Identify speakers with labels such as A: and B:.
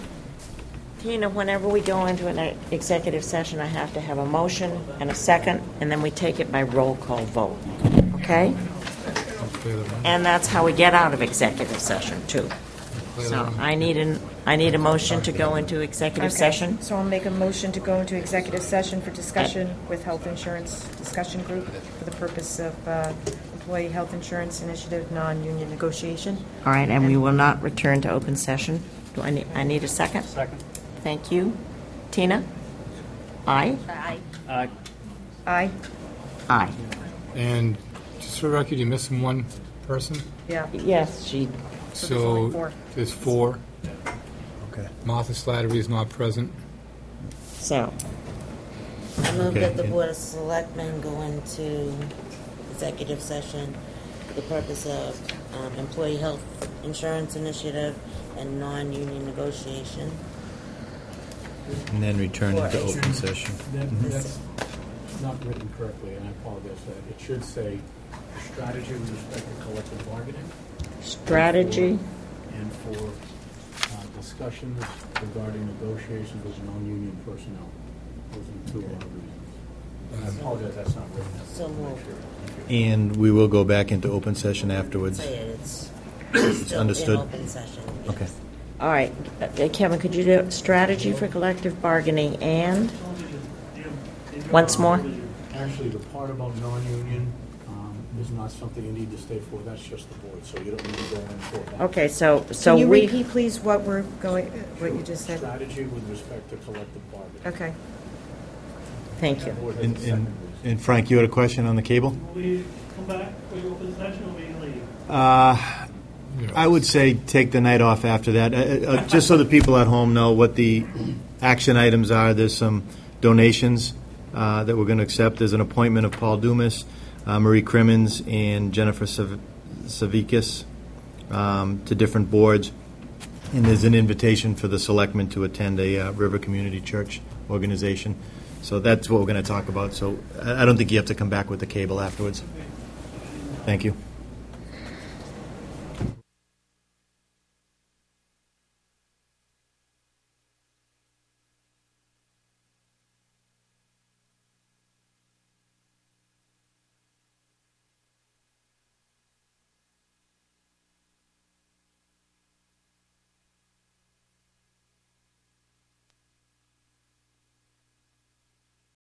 A: Tina, whenever we go into an executive session, I have to have a motion and a second, and then we take it by roll call vote, okay? And that's how we get out of executive session, too. So I need an, I need a motion to go into executive
B: Okay.
A: session.
B: So I'll make a motion to go into executive session for discussion with health insurance discussion group for the purpose of uh, employee health insurance initiative, non-union negotiation.
A: All right, and we will not return to open session. Do I need, I need a second? Second. Thank you. Tina? Aye?
B: Aye?
A: Aye.
C: And just for the record, you're missing one person,
B: Yeah.
A: Yes, she,
B: So there's only
C: so
B: four.
C: there's four.
D: Okay.
C: Martha Slattery is not present.
A: so.
E: I move that the
D: Okay.
E: Board of Selectmen go into executive session for the purpose of um, employee health insurance initiative and non-union negotiation.
D: And then return into open session. Mm-hmm.
F: That, that's not written correctly, and I apologize for that. It should say strategy with respect to collective bargaining
A: Strategy?
F: and for uh, discussions regarding negotiations with non-union personnel. Those are two of our reasons. I apologize, that's not written.
E: So moved.
D: And we will go back into open session afterwards.
E: Say it, it's still in
D: understood.
E: open session.
D: Okay.
A: All right, Uh, Kevin, could you do strategy for collective bargaining and? Once more?
F: Actually, the part about non-union um, is not something you need to stay for. That's just the board, so you don't need to go in for that.
A: Okay, so, so
B: Can you
A: we.
B: repeat, please, what we're going, what you just said?
F: Strategy with respect to collective bargaining.
B: Okay.
A: Thank you.
F: Board has a
D: And-
F: second
D: And
F: reason.
D: and Frank, you had a question on the cable?
G: We come back, we open session, or we leave.
D: I would say take the night off after that, Uh, uh, uh, just so the people at home know what the action items are. There's some donations uh, that we're going to accept. There's an appointment of Paul Dumas, uh, Marie Crimmins, and Jennifer Sav- Savikis um, to different boards. And there's an invitation for the selectmen to attend a uh, River Community Church organization. So that's what we're going to talk about. So I I don't think you have to come back with the cable afterwards. Thank you.